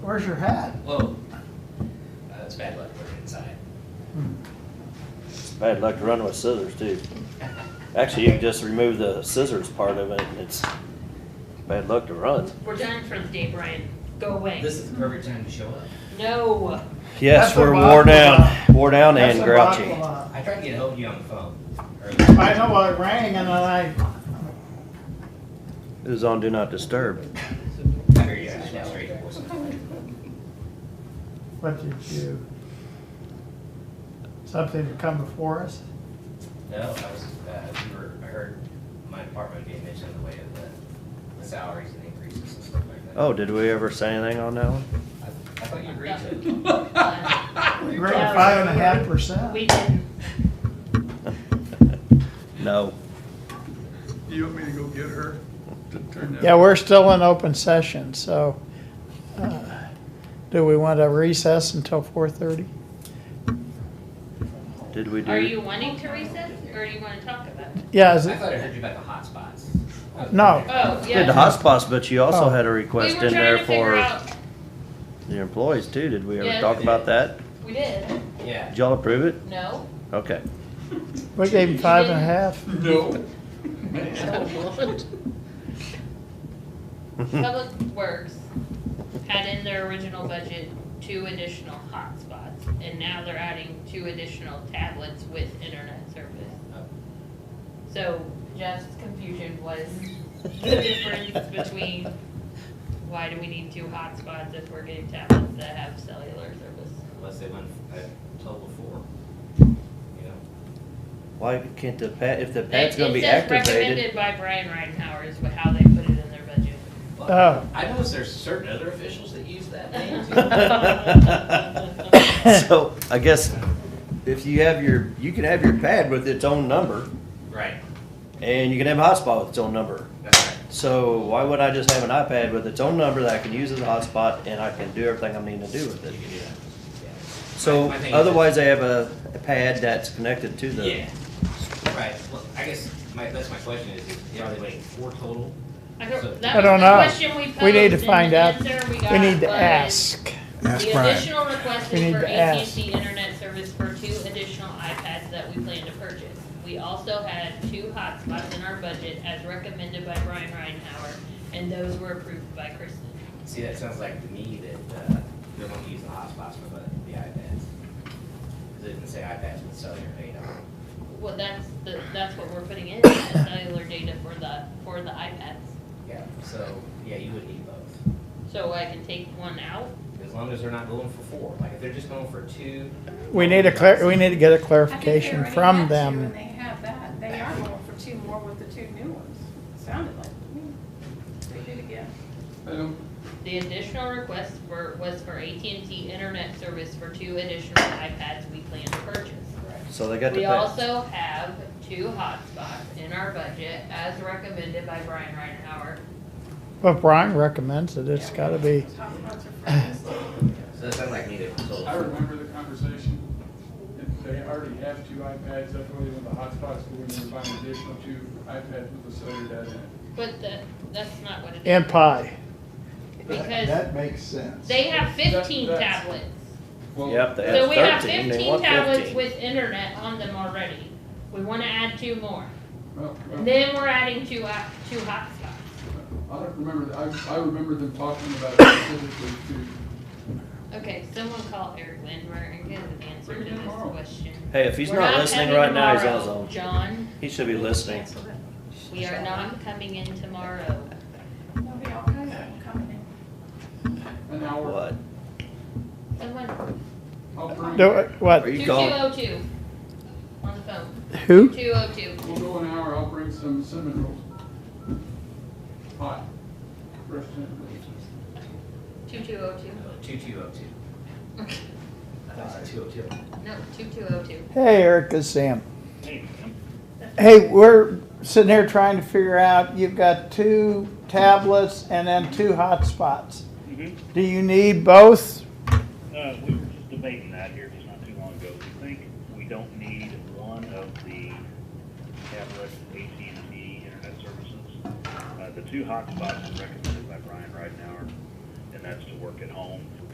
Where's your hat? Whoa. Uh, it's bad luck working inside. I'd like to run with scissors too. Actually, you can just remove the scissors part of it, and it's bad luck to run. We're done for the day, Brian. Go away. This is the perfect time to show up. No. Yes, That's a we're rock wore down, without- wore down That's and a grouchy. bottle, I tried to get hold of you on the phone. uh, earlier. I know I rang and then I, It was on do not disturb. I heard you. I was straight to voicemail. what did you? Something to come before us? No, I was, uh, we were, I heard my department being mentioned in the way of the, the salaries and increases and stuff like that. Oh, did we ever say anything on that one? Oh. I I thought you agreed to it. Uh, We're at five and a half percent. We didn't. No. You want me to go get her to turn that? Yeah, we're still in open session, so, uh, do we want to recess until four thirty? Did we do? Are you wanting to recess or do you want to talk about it? Yeah, I is it, thought I heard you about the hot spots. No. Oh, yeah. Did the hotspots, but you also Oh. had a We request were in trying there to figure for out, the employees too. Did we ever Yeah. talk about that? we did. Yeah. Did y'all approve it? No. Okay. we gave him five and a half. No. Hmm. Public Works had in their original budget two additional hotspots and now they're adding two additional tablets with internet service. So Jeff's confusion was the difference between why do we need two hotspots if we're getting tablets that have cellular service? Unless they went a total of four. You know? Why can't the pad, if the pad's It's gonna be activated? Recommended by Brian Ridenhour is what- how they put it in their budget. But Oh. I noticed there's certain other officials that use that name too. So I guess if you have your, you can have your pad with its own number Right, and you can have a hotspot with its own number. that's right. So why would I just have an iPad with its own number that I can use as a hotspot and I can do everything I'm needing to do with it? You can do that. Yeah. So My- my thing is- otherwise they have a, a pad that's connected to the, Yeah, right, well, I guess my, that's my question is, is are they waiting four total? I don't, I that don't know. was the question we posed. We need to and the find out. answer We need to got was ask. Ask The Brian. additional request We is need for to ask. AT&T internet service for two additional iPads that we plan to purchase. We also had two hotspots in our budget as recommended by Brian Ridenhour, and those were approved by Kristen. See, that sounds like to me that, uh, they're gonna use the hotspots for the, the iPads. Cause it didn't say iPads with cellular data. Well, that's, the that's what we're putting in, is cellular data for the, for the iPads. Yeah, so, yeah, you would need both, So I can take one out. as long as they're not going for four, like, if they're just going for two. We need a clar, we need to get a I think they clarification already from had two them. And they have that, they are going for two more with the two new ones, sounded like, to me. they did again. I don't, The additional request for, was for AT&T internet service for two additional iPads we plan to purchase. Right. so they got the We pad. also have two hotspots in our budget as recommended by Brian Reinhauer. But Brian recommends it, it's gotta be, Those hotspots are friends. So that sounds like neither total. I remember the conversation. If They already have two iPads, that's why they want the hotspots, but when they buy an additional two iPads with the cellular data in it. But the, that's not what it is. and pie. Because makes sense. they have fifteen That- that's- tablets. Well, Yep, they So have we have thirteen, they fifteen want tablets fifteen. with internet on them already. We wanna add two more. well, well, Then we're adding two, hot- two hotspots. I don't remember, that. I, I remember them talking about it specifically to, Okay, someone call Eric Lindmer and get an answer to this question. Hey, if he's We're not listening coming right now, he's on tomorrow, his own. John, He should be listening. we are not coming in tomorrow. There'll be all kinds of them coming in. an hour. What? Someone, I'll bring, Do, Are uh, what, you two two calling? oh two, on the phone, who? two oh two. we'll go an hour, I'll bring some cinnamon rolls. Hot. Fresh cinnamon rolls. 2202. Two two oh two. I thought it said two oh two. No, 2202. Hey, Eric, it's Sam. Hey, we're sitting here trying to figure out, you've got two tablets and then two hotspots. Mhm. Do you need both? Uh, we were just debating that here just not too long ago. We think we don't need one of the tablet E AT&T internet services. Uh, the two hotspots recommended by Brian right now are and that's to work at home